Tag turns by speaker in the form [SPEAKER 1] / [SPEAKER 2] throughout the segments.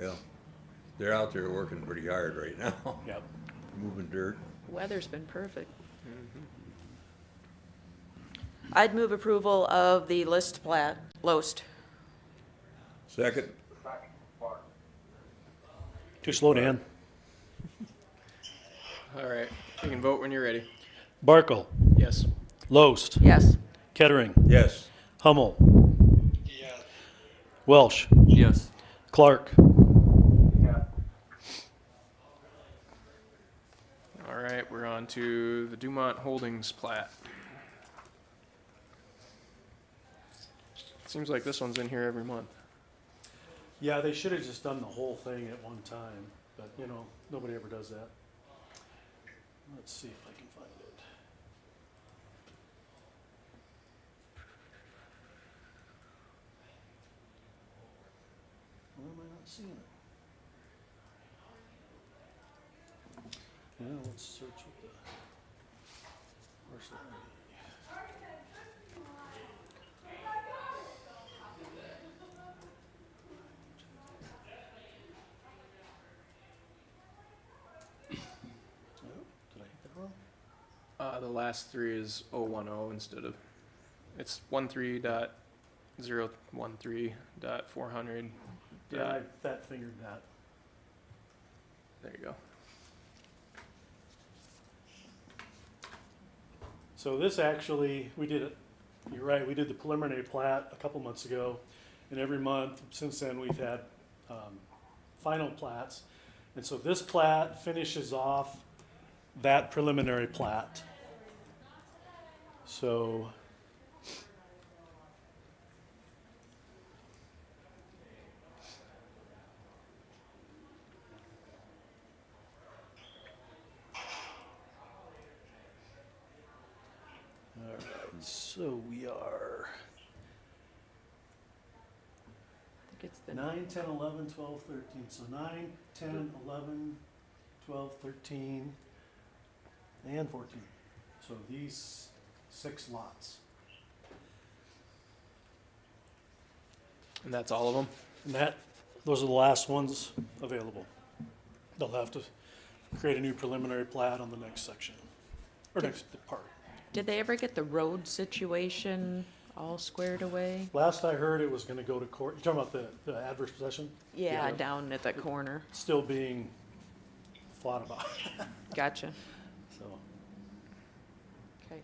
[SPEAKER 1] yeah. They're out there working pretty hard right now,
[SPEAKER 2] Yep.
[SPEAKER 1] moving dirt.
[SPEAKER 3] Weather's been perfect. Mm-hmm. I'd move approval of the list plat, Loest.
[SPEAKER 1] Second,
[SPEAKER 2] Too slow, Dan.
[SPEAKER 4] All right. You can vote when you're ready.
[SPEAKER 2] Barkle,
[SPEAKER 4] Yes.
[SPEAKER 2] Loest,
[SPEAKER 3] Yes.
[SPEAKER 2] Kettering,
[SPEAKER 1] yes,
[SPEAKER 2] Hummel. Welsh,
[SPEAKER 4] Yes.
[SPEAKER 2] Clark,
[SPEAKER 4] All right. We're on to the Dumont Holdings plat. Seems like this one's in here every month.
[SPEAKER 2] Yeah, they should have just done the whole thing at one time, but you know, nobody ever does that. Let's see if I can find it. Why am I not seeing it? Yeah, let's search with the. Where's that? Oh, Did I hit that wrong?
[SPEAKER 4] Uh, the last three is 010 instead of. It's 13 dot 013 dot 400.
[SPEAKER 2] Yeah, I
[SPEAKER 4] Dot,
[SPEAKER 2] fat fingered that.
[SPEAKER 4] there you go.
[SPEAKER 2] So this actually, we did it, you're right, we did the preliminary plat a couple months ago. And every month since then, we've had um, final plats. And so this plat finishes off that preliminary plat. So. All right, so we are
[SPEAKER 3] It's the
[SPEAKER 2] nine, ten, eleven, twelve, thirteen. So nine, ten, eleven, twelve, thirteen, and fourteen. So these six lots.
[SPEAKER 4] And that's all of them?
[SPEAKER 2] And that, those are the last ones available. They'll have to create a new preliminary plat on the next section, or next part.
[SPEAKER 3] Did they ever get the road situation all squared away?
[SPEAKER 2] Last I heard, it was gonna go to court. You're talking about the, the adverse possession
[SPEAKER 3] Yeah,
[SPEAKER 2] Yeah.
[SPEAKER 3] down at that corner.
[SPEAKER 2] still being thought about,
[SPEAKER 3] Gotcha.
[SPEAKER 2] so.
[SPEAKER 3] Okay.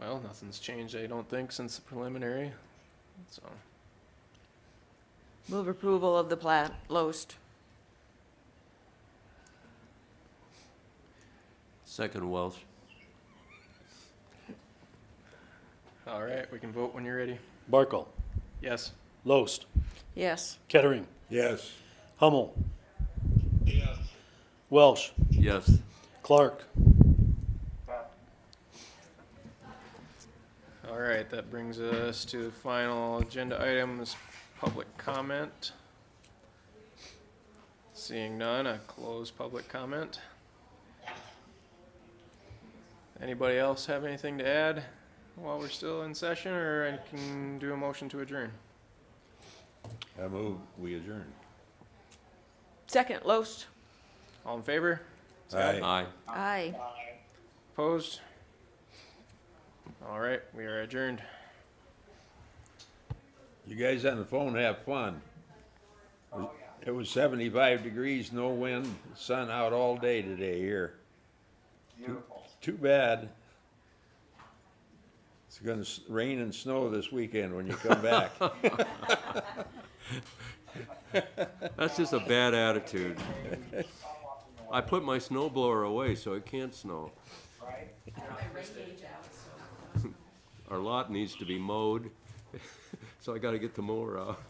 [SPEAKER 4] Well, nothing's changed, I don't think, since the preliminary. So,
[SPEAKER 3] Move approval of the plat, Loest.
[SPEAKER 5] Second Welsh.
[SPEAKER 4] all right, we can vote when you're ready.
[SPEAKER 2] Barkle,
[SPEAKER 4] Yes.
[SPEAKER 2] Loest,
[SPEAKER 3] Yes.
[SPEAKER 2] Kettering,
[SPEAKER 1] yes,
[SPEAKER 2] Hummel. Welsh,
[SPEAKER 5] Yes.
[SPEAKER 2] Clark.
[SPEAKER 4] All right, that brings us to the final agenda items, public comment. Seeing none, I close public comment. Anybody else have anything to add while we're still in session, or I can do a motion to adjourn?
[SPEAKER 1] I move, we adjourn.
[SPEAKER 3] Second, Loest.
[SPEAKER 4] All in favor?
[SPEAKER 1] Aye.
[SPEAKER 5] Aye.
[SPEAKER 3] Aye.
[SPEAKER 4] Opposed? All right, we are adjourned.
[SPEAKER 1] You guys on the phone have fun. It was seventy-five degrees, no wind, sun out all day today here. Beautiful. Too bad. It's gonna s- rain and snow this weekend when you come back.
[SPEAKER 5] That's just a bad attitude. I put my snow blower away so it can't snow. Our lot needs to be mowed, so I gotta get the mower out.